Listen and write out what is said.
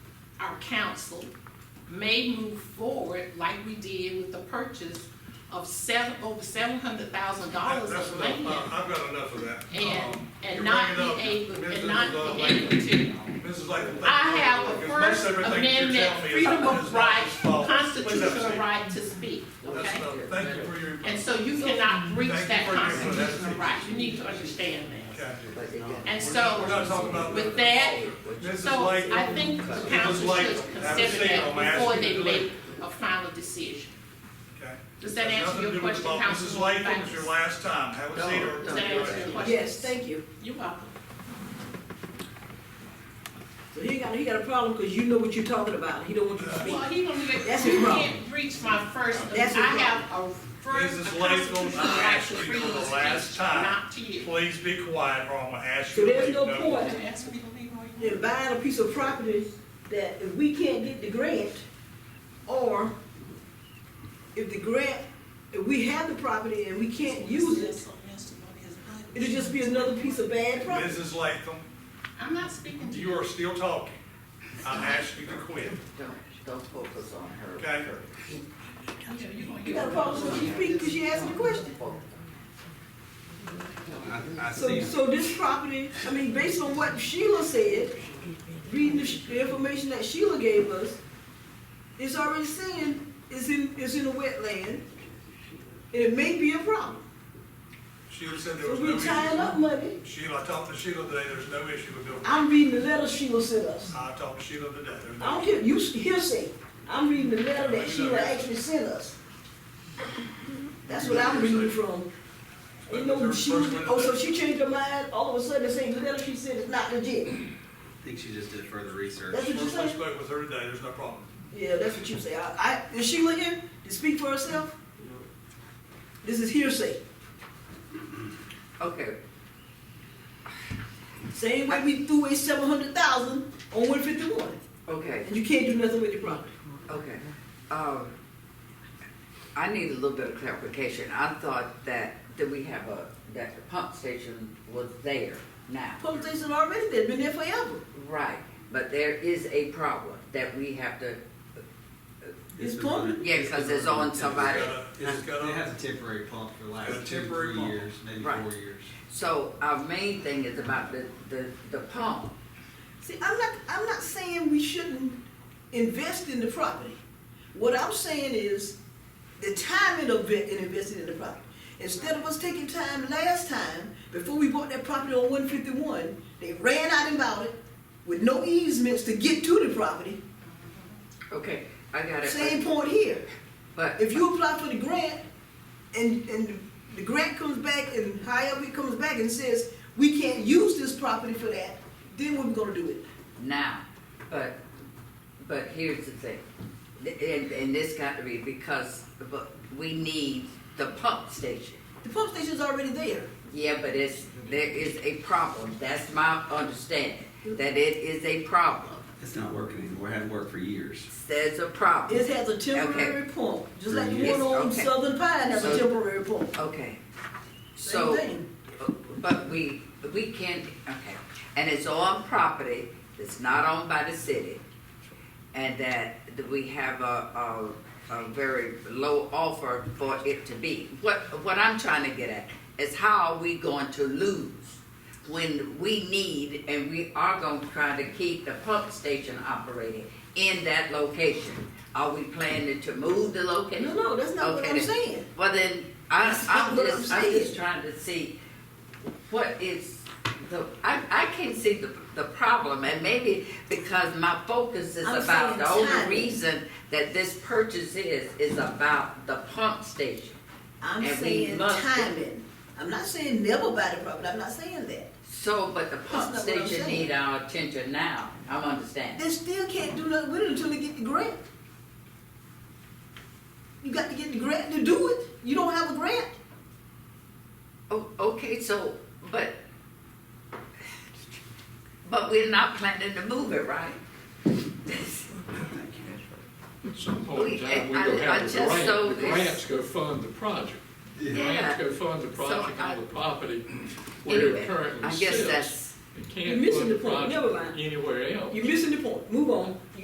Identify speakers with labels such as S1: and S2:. S1: council may move forward like we did with the purchase of seven, over seven hundred thousand
S2: That-
S1: dollars
S2: That's
S1: of
S2: enough,
S1: land.
S2: I- I've got enough of that.
S1: And,
S2: Um,
S1: and
S2: you're
S1: not
S2: bringing
S1: be
S2: up
S1: able,
S2: Mrs.
S1: and not be
S2: Lovelace.
S1: able to.
S2: Mrs. Latham.
S1: I have a First Amendment freedom of right, constitutional right to speak,
S2: That's
S1: okay?
S2: enough, thank you for your.
S1: And so you cannot breach
S2: Thank you
S1: that
S2: for your input. That's
S1: constitutional
S2: it.
S1: right, you need to understand that.
S2: Okay.
S1: And
S2: We're not
S1: so,
S2: talking about.
S1: with that,
S2: Mrs.
S1: so
S2: Latham.
S1: I think the council
S2: like-
S1: should
S2: have a
S1: consider
S2: seat on my
S1: that before
S2: ass.
S1: they make a final decision.
S2: Okay.
S1: Does that
S2: Has
S1: answer
S2: nothing to
S1: your
S2: do with the
S1: question,
S2: vote. Mrs.
S1: Councilwoman
S2: Latham, it's your
S1: Banks?
S2: last time, have a seat or.
S1: Does that answer your question?
S3: Yes, thank you.
S1: You're welcome.
S3: So he got, he got a problem because you know what you're talking about. He don't want you to speak.
S1: Well, he don't get,
S3: That's
S1: you
S3: his problem.
S1: can't breach my first, I
S3: That's his
S1: have a first
S2: Mrs.
S1: a
S2: Latham,
S1: constitutional
S2: I
S1: right
S2: asked
S1: to
S2: you
S1: freely
S2: for the
S1: speech,
S2: last time,
S1: not to you.
S2: please be quiet or I'm gonna ask
S3: So
S2: you. to
S3: there's
S2: leave.
S3: no point
S1: Ask me to leave or you-
S3: in buying a piece of property that if we can't get the grant, or if the grant, if we have the property and we can't use it, it'll just be another piece of bad property.
S2: Mrs. Latham,
S1: I'm not speaking to
S2: you
S1: you.
S2: are still talking, I asked you to quit,
S4: Don't, don't focus on her.
S2: okay?
S1: You know, you gonna
S3: You
S1: get-
S3: got a problem because she speaking because she asking the question.
S5: I, I
S3: So,
S5: see,
S3: so this property, I mean, based on what Sheila said, reading the, sh- the information that Sheila gave us, it's already saying it's in, it's in a wetland. And it may be a problem.
S2: Sheila said there
S3: So
S2: was no
S3: we're tying up
S2: issue.
S3: money.
S2: Sheila, I talked to Sheila today, there's no issue with building.
S3: I'm reading the letter Sheila sent us.
S2: I talked to Sheila today, there's
S3: I
S2: no.
S3: don't care, you s- hearsay. I'm reading the letter that Sheila actually sent us. That's what I'm reading from. You know, she, oh, so she changed her mind, all of a sudden, they say the letter she said is not legit.
S5: I think she just did further research.
S3: That's what you
S2: First
S3: said?
S2: I spoke with her today, there's no problem.
S3: Yeah, that's what you say. I, I, is Sheila here to speak for herself? This is hearsay.
S4: Okay,
S3: Same way we threw away seven hundred thousand on one fifty-one,
S4: okay,
S3: and you can't do nothing with the property.
S4: okay. Um, I need a little bit of clarification. I thought that, that we have a, that the pump station was there now.
S3: Pump station already there, been there forever.
S4: Right, but there is a problem that we have to,
S3: It's
S5: been
S3: plumbing?
S5: running-
S4: Yeah, 'cause
S5: been
S4: it's
S5: running
S4: on
S5: ten-
S4: somebody.
S5: It's got, it has a temporary pump for the
S2: Got a
S5: last two,
S2: temporary
S5: three
S2: pump.
S5: years, maybe
S4: Right.
S5: four years.
S4: so our main thing is about the, the, the pump.
S3: See, I'm not, I'm not saying we shouldn't invest in the property. What I'm saying is the timing of it in investing in the property. Instead of us taking time last time, before we bought that property on one fifty-one, they ran out and bought it with no easements to get to the property.
S4: Okay, I got it.
S3: Same point here.
S4: But,
S3: If you apply for the grant and, and the grant comes back and however it comes back and says, we can't use this property for that, then what we gonna do it?
S4: now, but, but here's the thing, and, and this got to be because, but we need the pump station.
S3: The pump station's already there.
S4: Yeah, but it's, there is a problem, that's my understanding, that it is a problem,
S5: It's not working anymore, it hasn't worked for years.
S4: there's a problem.
S3: It has a temporary pump, just like the
S4: Yes,
S3: one on
S4: okay.
S3: Southern Pine has a
S4: So-
S3: temporary pump.
S4: Okay, so.
S3: Same thing.
S4: But we, we can't, okay, and it's on property that's not owned by the city, and that that we have a, a, a very low offer for it to be. What, what I'm trying to get at is how are we going to lose when we need, and we are gonna try to keep the pump station operating in that location? Are we planning to move the location?
S3: No, no, that's not what
S4: Okay,
S3: I'm
S4: then-
S3: saying.
S4: Well, then, I,
S3: That's not
S4: I'm
S3: what I'm
S4: just, I'm
S3: saying.
S4: just trying to see what is the, I, I can see the, the problem, and maybe because my focus is
S3: I'm
S4: about,
S3: saying
S4: the only
S3: timing.
S4: reason that this purchase is, is about the pump station.
S3: I'm
S4: And we
S3: saying
S4: must-
S3: timing. I'm not saying never buy the property, I'm not saying that.
S4: So, but the pump
S3: That's not what I'm
S4: station
S3: saying.
S4: need our attention now, I'm understanding.
S3: They still can't do nothing with it until they get the grant. You got to get the grant to do it. You don't have a grant.
S4: Oh, okay, so, but, but we're not planning to move it, right?
S6: At some point in time, oh, we
S4: I-
S6: go
S4: I
S6: have
S4: just
S6: a
S4: so
S6: grant, the
S4: this-
S6: grants go fund the project. The
S4: Yeah.
S6: grants go fund the project
S4: I-
S6: on the property where
S4: Anyway,
S6: it currently
S4: I guess
S6: sits.
S4: that's,
S6: It
S3: You're
S6: can't
S3: missing
S6: fund the
S3: the point. Never
S6: project
S3: mind.
S6: anywhere else.
S3: You're missing the point. Move on.